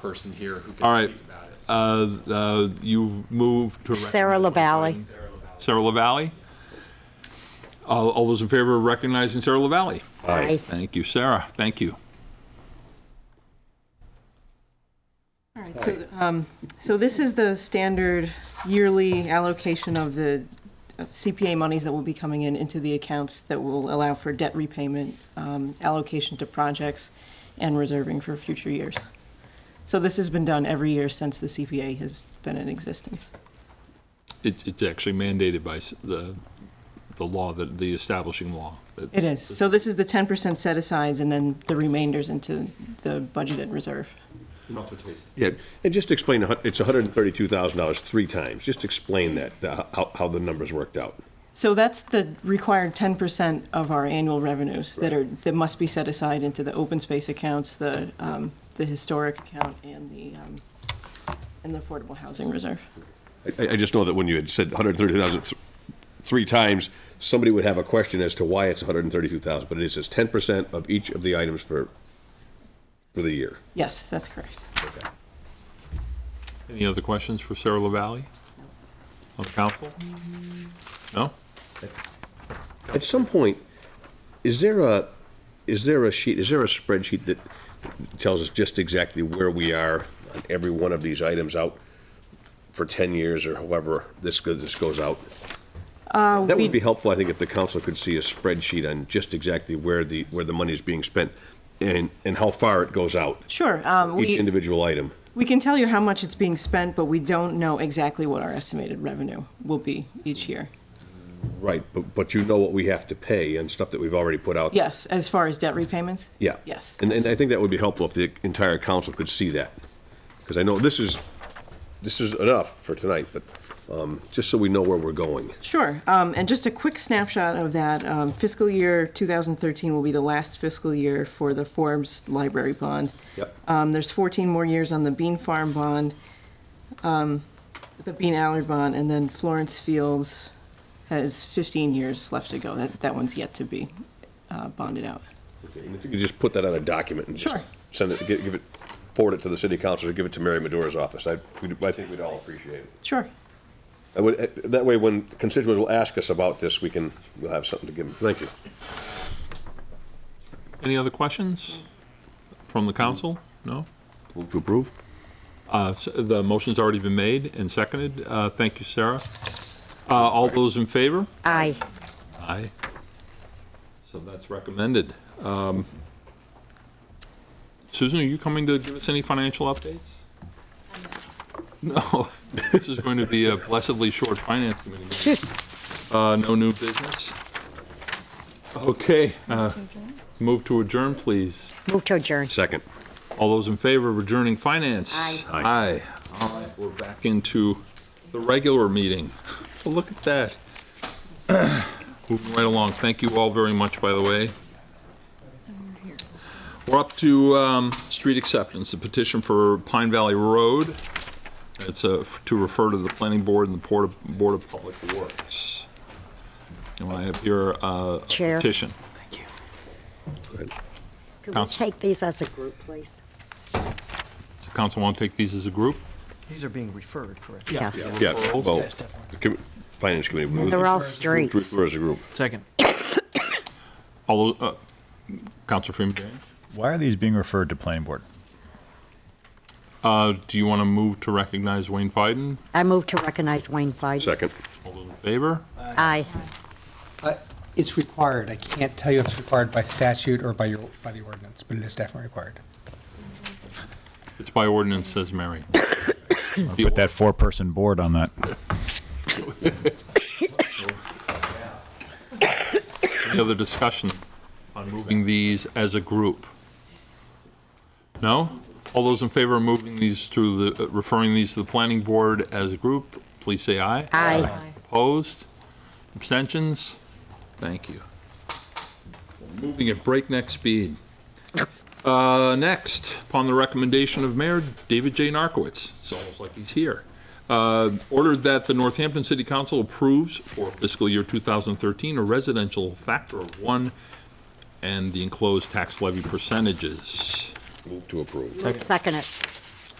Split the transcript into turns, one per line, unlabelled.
person here who
All
can
right.
speak about it.
Uh, uh, You move to.
Sarah
recommend-
LaValle.
Sarah LaValle. All all those in favor of recognizing Sarah LaValle?
Aye.
Thank you, Sarah. Thank you.
All right, so, um, so this is the standard yearly allocation of the CPA monies that will be coming in into the accounts that will allow for debt repayment, um, allocation to projects, and reserving for future years. So this has been done every year since the CPA has been in existence.
It's it's actually mandated by s- the the law, the- the establishing law. that-
It is. So this is the ten percent set asides and then the remainders into the budgeted reserve.
Yeah, and just explain, the hun- it's $132,000 three times. Just explain that, the- how, how the numbers worked out.
So that's the required ten percent of our annual revenues that are, that must be set aside into the open space accounts, the, um, the historic account and the, um, and the affordable housing reserve.
I, I just know that when you had said 132,000 th- three times, somebody would have a question as to why it's 132,000, but it says 10% of each of the items for, for the year.
Yes, that's correct.
Any other questions for Sarah LaValle? On the council? No?
At some point, is there a, is there a sheet, is there a spreadsheet that tells us just exactly where we are on every one of these items out for 10 years or however this goes, this goes out? That would be helpful, I think, if the council could see a spreadsheet on just exactly where the, where the money is being spent and, and how far it goes out,
Sure, um,
each
we,
individual item.
we can tell you how much it's being spent, but we don't know exactly what our estimated revenue will be each year.
Right, but, but you know what we have to pay and stuff that we've already put out.
Yes, as far as debt repayments?
Yeah.
Yes.
And, and I think that would be helpful if the entire council could see that. Because I know this is, this is enough for tonight, but um, just so we know where we're going.
Sure, um, and just a quick snapshot of that, um, fiscal year 2013 will be the last fiscal year for the Forbes Library Bond.
Yep.
Um, there's 14 more years on the Bean Farm Bond, um, the Bean Allard Bond, and then Florence Fields has 15 years left to go. That, that one's yet to be uh, bonded out.
And If you could just put that on a document and just
Sure.
send it, gi- give it, forward it to the city council or give it to Mary Madura's office. I, we'd- I think we'd all appreciate it.
Sure.
I would, eh, that way when constituents will ask us about this, we can, we'll have something to give them. Thank you.
Any other questions from the council? No?
Move to approve?
Uh, s- The motion's already been made and seconded. Uh, Thank you, Sarah. Uh, All those in favor?
Aye.
Aye. So that's recommended. Um, Susan, are you coming to give us any financial updates? No, this is going to be a blessedly short finance committee. meeting. Uh, No new business? Okay, uh, move to adjourn, please.
Move to adjourn.
Second.
All those in favor of adjourning finance?
Aye.
Aye. All right, we're back into the regular meeting. Well, look at that. Moving right along. Thank you all very much, by the way. We're up to um, street acceptance, the petition for Pine Valley Road. It's uh, to refer to the planning board and the Board of- Board of Public Works. And I have your uh,
Chair.
petition.
Could we
Counsel.
take these as a group, please?
Does the council want to take these as a group?
These are being referred, correct?
Yes.
Yeah,
Referrals?
well, the commi- Finance Committee. move
They're all
to
streets.
refer As a group.
Second.
All, tho- uh, Counselor Freeman Barry?
Why are these being referred to planning board?
Uh, do you want to move to recognize Wayne Fiden?
I move to recognize Wayne Feig.
Second.
All those in favor?
Aye.
Uh, It's required. I can't tell you if it's required by statute or by your, by the ordinance, but it is definitely required.
It's by ordinance, says Mary.
Put that four-person board on that.
Any other discussion on moving these as a group? No? All those in favor of moving these to the, uh, referring these to the planning board as a group, please say aye.
Aye.
Opposed? Abstentions? Thank you. We're Moving at breakneck speed. Uh, Next, upon the recommendation of Mayor David J. Narcoitz, it's almost like he's here, uh, ordered that the Northampton City Council approves for fiscal year 2013 a residential factor of one and the enclosed tax levy percentages.
Move to approve.
Second it.